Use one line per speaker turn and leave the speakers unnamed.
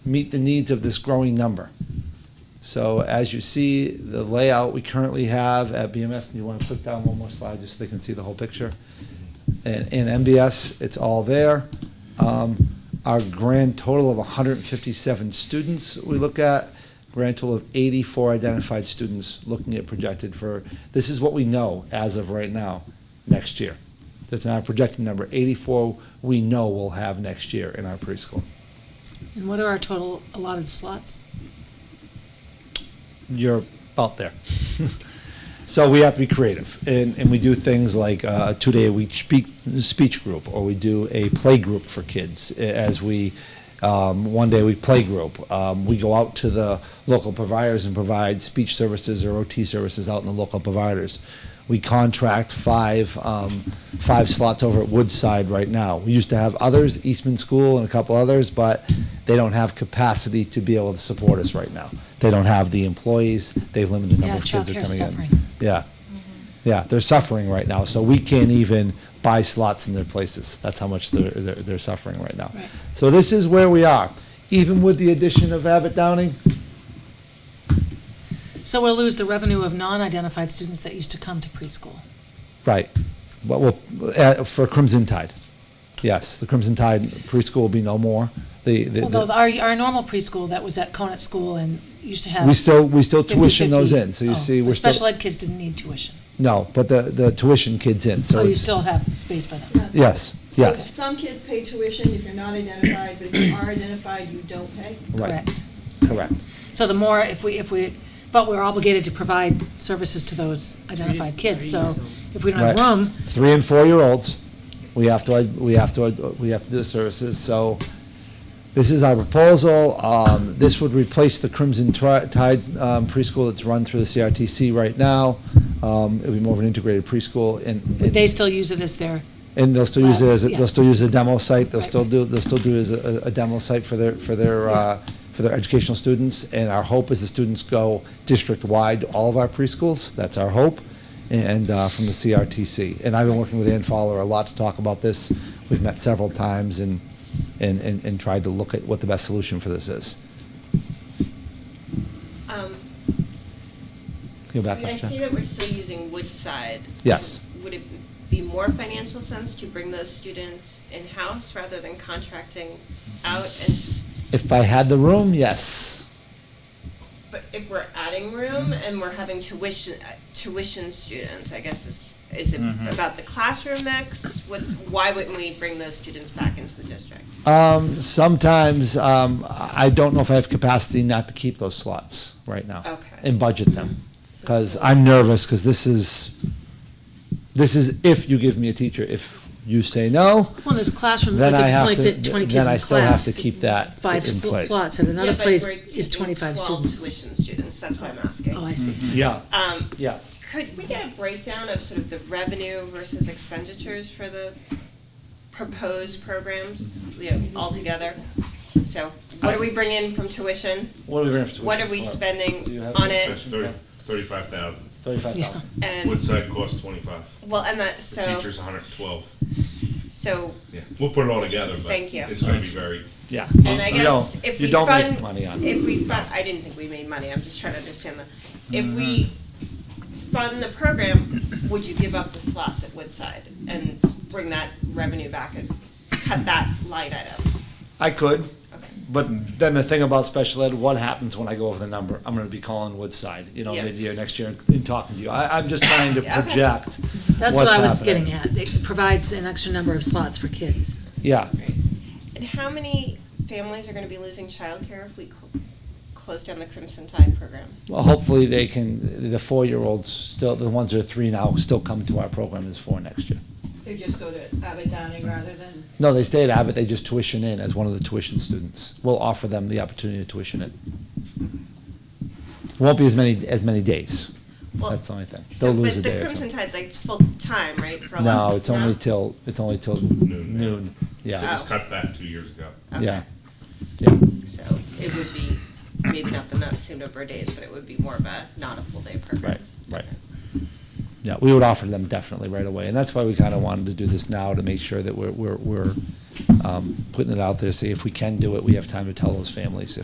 meet the needs of this growing number. So as you see, the layout we currently have at BMS, and you want to click down one more slide just so they can see the whole picture. And in MBS, it's all there. Um, Our grand total of 157 students we look at, grand total of 84 identified students looking at projected for, this is what we know as of right now, next year. That's not a projected number. 84 we know we'll have next year in our preschool.
And what are our total allotted slots?
you're about there. so we have to be creative, and, and we do things like uh, a two-day-a-week speak, speech group, or we do a play group for kids. a- As we um, one day we play group, um, we go out to the local providers and provide speech services or OT services out in the local providers. We contract five um, five slots over at Woodside right now. We used to have others, Eastman School and a couple others, but they don't have capacity to be able to support us right now. They don't have the employees. They've limited number
Yeah,
of kids that are
childcare's
coming
suffering.
in. Yeah, yeah, they're suffering right now. So we can't even buy slots in their places. That's how much they're they're, they're suffering right now.
Right.
So this is where we are, even with the addition of Abbott Downing.
So we'll lose the revenue of non-identified students that used to come to preschool.
Right. But well, uh, for Crimson Tide, yes, the Crimson Tide preschool will be no more. The, the,
Although
the-
our, our normal preschool that was at Conant School and used to have.
we still we still tuition
50-50.
those in. So you
Oh,
see, we're
but Special
still
ed kids didn't need tuition.
no, but the the tuition kids in. So
Oh, you
it's-
still have space for them.
yes,
So
yes,
some kids pay tuition if you're not identified, but if you are identified, you don't pay?
right,
Correct.
correct.
So the more, if we, if we, but we're obligated to provide services to those identified kids, so if we don't have
Right.
room,
Three and four year olds, we have to we have to we have to do services. So this is our proposal. Um, this would replace the Crimson Tri- Tide um, preschool that's run through the CRTC right now. Um, it would be more of an integrated preschool, and, and
they still use it as their,
And they'll still use it as, a-
Labs, yeah.
they'll still use a demo site, they'll
Right.
still do, they'll still do it as a, a demo site for their, for their, uh, for their educational students. And our hope is the students go district-wide, to all of our preschools, that's our hope, and, uh, from the CRTC. And I've been working with Ann Fowler a lot to talk about this. We've met several times and, and, and and tried to look at what the best solution for this is.
Um,
Can you go
I
back
mean, I
up,
see
Jen?
that we're still using Woodside.
Yes.
Would it be more financial sense to bring those students in-house rather than contracting out? And,
If I had the room, yes.
but if we're adding room
Mm-hmm.
and we're having tuition, uh, tuition students, I guess is, is it
Mm-hmm.
about the classroom mix? What, why wouldn't we bring those students back into the district?
Um, sometimes, um, I I don't know if I have capacity not to keep those slots right now.
Okay.
And budget them, because I'm nervous, because this is, this is if you give me a teacher, if you say no,
well, there's classroom,
then
like
I
if you only
have to,
fit twenty kids
then I
in
still have to
class,
keep that
five
in
sl-
place.
slots, and another
Yeah, but
place
we're
is
taking
twenty-five
Twelve
students.
tuition students, that's why I'm asking.
Oh, I see.
Yeah,
Um,
yeah.
Could we get a breakdown of sort of the revenue versus expenditures for the proposed programs, you know, altogether? So what do we bring in from tuition?
What are we gonna?
What are we spending on it?
That's thirty, thirty-five thousand.
Thirty-five thousand.
And,
Woodside costs twenty-five.
well, and that,
The
so,
teacher's hundred and twelve.
so,
Yeah, we'll put it all together, but
Thank you.
it's gonna be very,
Yeah.
Um,
and I
You
guess
don't-
if
you
we
don't make
fund,
money on it.
if we fund, I didn't think we made money, I'm just trying to understand that. If we
Mm-hmm.
fund the program, would you give up the slots at Woodside and bring that revenue back and cut that line item?
I could,
Okay.
but then the thing about special ed, what happens when I go over the number? I'm gonna be calling Woodside, you know,
Yeah.
mid-year, next year, and talking to you. I, I'm just trying to
Yeah, okay.
project
That's
what's
what I was
happening.
getting at, it provides an extra number of slots for kids.
Yeah,
And how many families are going to be losing childcare if we cl- close down the Crimson Tide program?
well, hopefully they can, the four-year-olds, still, the ones that are three now, still come to our program as four next year.
They just go to Abbott Downing rather than?
No, they stay at Abbott, they just tuition in as one of the tuition students. We'll offer them the opportunity to tuition in. Won't be as many, as many days.
Well,
That's the only thing.
So,
They'll lose a
but the
day or
Crimson
two.
Tide, like, it's full time, right? for a lot-
No, it's only till, it's only till
Noon.
noon,
they
yeah,
just cut that two years ago.
Oh, Okay.
yeah, yeah.
So it would be maybe not the not same number of days, but it would be more of a not a full day program.
Right, right. Yeah, we would offer them definitely right away, and that's why we kind of wanted to do this now, to make sure that we're, we're, we're um, putting it out there, see if we can do it, we have time to tell those families if